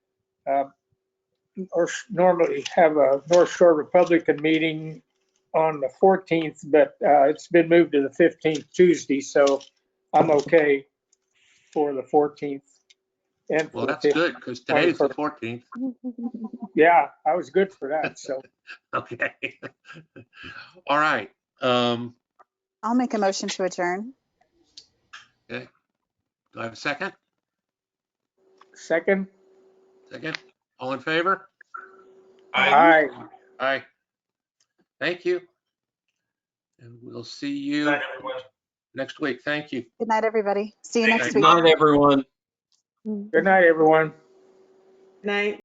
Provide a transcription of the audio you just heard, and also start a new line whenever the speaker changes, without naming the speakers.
uh, or s- normally have a North Shore Republican meeting on the 14th, but uh, it's been moved to the 15th Tuesday, so I'm okay for the 14th. and for
Well,
the
that's good, because today's the 14th.
Yeah, I was good for that, so.
Okay. All right. Um,
I'll make a motion to adjourn.
do I have a second?
Second?
Second? All in favor?
Aye.
Aye. Thank you. And we'll see you
Night, everyone.
next week. Thank you.
Good night, everybody. See you next
Good
week.
Good night, everyone.
Good night, everyone.
Night.